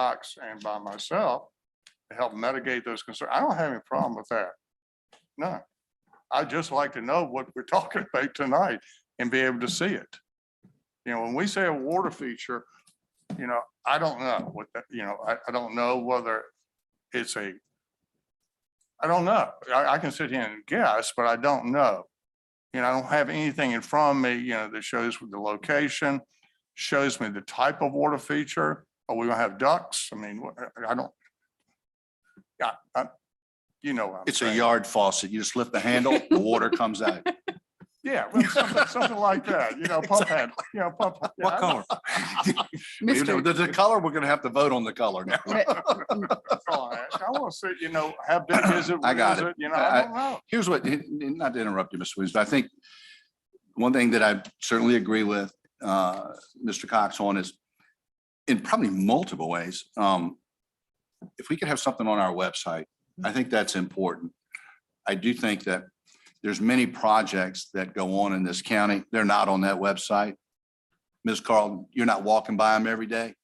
Cox and by myself to help mitigate those concerns. I don't have any problem with that. No. I'd just like to know what we're talking about tonight and be able to see it. You know, when we say a water feature, you know, I don't know what, that you know, I, I don't know whether it's a, I don't know. I, I can sit here and guess, but I don't know. You know, I don't have anything in front of me, you know, that shows the location, shows me the type of water feature. Are we gonna have ducks? I mean, what- I don't. Yeah, I, you know. what I'm It's a saying. yard faucet. You just lift the handle, the water comes out. Yeah, well, something, something like that, you know, pump handle, you know, pump. yeah, I What know. color? You know, Mr. The, the color, we're gonna have to vote on the color now. Sorry, I want to say, you know, how big is it? I What got is it. You know, I- I don't know. Here's what, n- n- not to interrupt you, Mr. Williams, but I think one thing that I certainly agree with, uh, Mr. Cox on is in probably multiple ways, um, if we could have something on our website, I think that's important. I do think that there's many projects that go on in this county. They're not on that website. Ms. Carlton, you're not walking by them every day,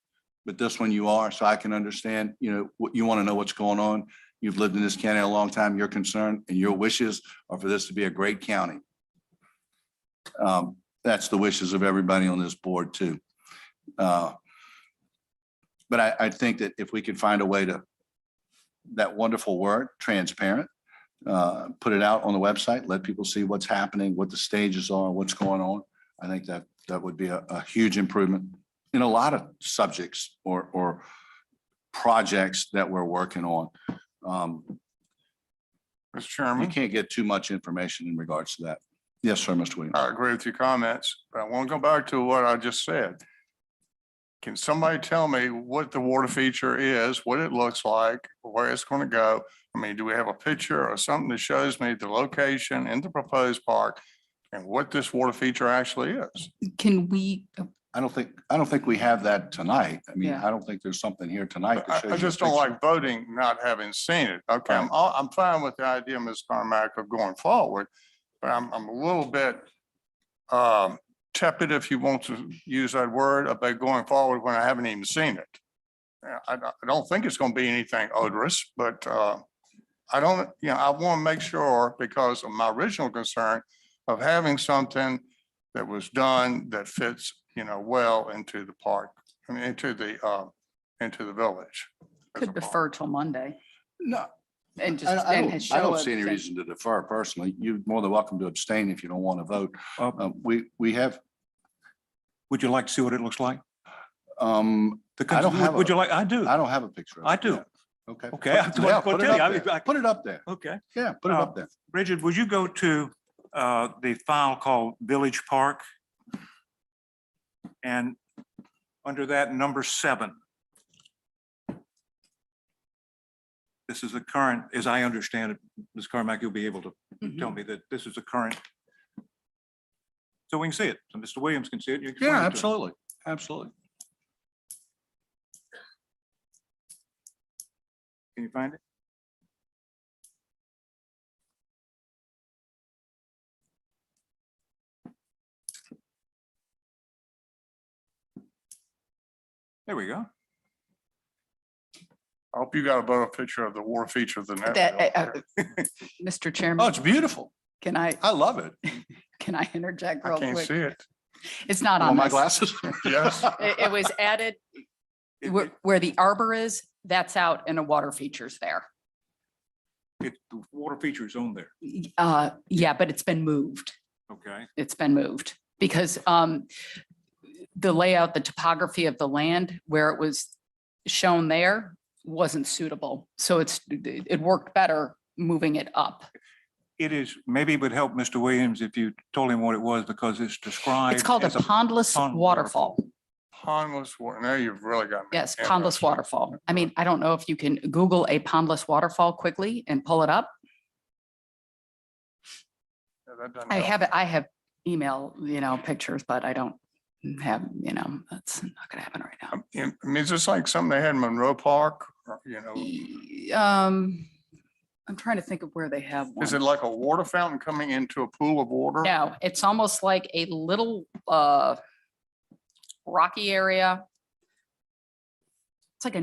but this one you are, so I can understand, you know, what you want to know what's going on. You've lived in this county a long time. Your concern and your wishes are for this to be a great county. Um, That's the wishes of everybody on this board too. Uh, But I, I think that if we could find a way to, that wonderful word, transparent, uh, put it out on the website, let people see what's happening, what the stages are, what's going on. I think that, that would be a, a huge improvement in a lot of subjects or, or projects that we're working on. Um, Mr. You Mm-hmm. Chairman, can't get too much information in regards to that. Yes, sir, Mr. Williams. I agree with your comments, but I want to go back to what I just said. Can somebody tell me what the water feature is, what it looks like, where it's going to go? I mean, do we have a picture or something that shows me the location in the proposed park and what this water feature actually is? Can we, uh, I don't think, I don't think we have that tonight. I mean, Yeah. I don't think there's something here tonight. that I, shows I you a just don't picture. like voting not having seen it. Okay, I'm, all- I'm fine with the idea, Ms. Carmack, of going forward, but I'm, I'm a little bit um, tepid, if you want to use that word, about going forward when I haven't even seen it. Yeah, I, don't- I don't think it's going to be anything odorous, but uh, I don't, you know, I want to make sure, because of my original concern of having something that was done that fits, you know, well into the park, I mean, into the, uh, into the village. as a could park. defer till Monday No, and just. I- I and don't, show I don't see any everything. reason to defer personally. You're more than welcome to abstain if you don't want to vote. Uh, Um, We, we have, Would you like to see what it looks like? um, The I don't cons- would- have Would a- you like, I do. I don't have a picture. of I it do. yet. Okay. Okay, I'm Yeah, going put to it tell you. up I mean, there. I- Put it up there. Okay. Yeah, Oh. put it Uh, up there. Bridget, would you go to uh, the file called Village Park? And under that, number seven. This is the current, as I understand it, Ms. Carmack, you'll be able to tell Mm-hmm. Mhm. me that this is the current. So we can see it. So Mr. Williams can see it. you can Yeah, explain it to him. absolutely, absolutely. Can you find it? There we go. I hope you got a better picture of the war feature than That, uh, that. uh, Mr. Oh, Chairman, it's beautiful. can I, I love it. can I interject I real can't see quick? it. It's not On Oh, on my this. glasses. Yes. It, it was added It- where, where the arbor is, that's out and a water feature's there. It, it- the water feature is on there, Y- Uh, yeah, but it's been moved. okay? it's been moved because um the layout, the topography of the land where it was shown there wasn't suitable. So it's, it worked better moving it up. It is, maybe it would help Mr. Williams if you told him what it was because it's described. It's called a as pondless pond waterfall. Pondless water. Now you've really got. me Yes, pondless interested. waterfall. I mean, I don't know if you can Google a pondless waterfall quickly and pull it up. Yeah, that doesn't I help. have, I have email, you know, pictures, but I don't have, you know, that's not gonna happen right now. I mean, Um, I mean, is this like something they had in Monroe Park? or, You know, Y- Um, I'm trying to think of where they have one. is it like a water fountain coming into a pool of water? No, it's almost like a little uh rocky area. It's like a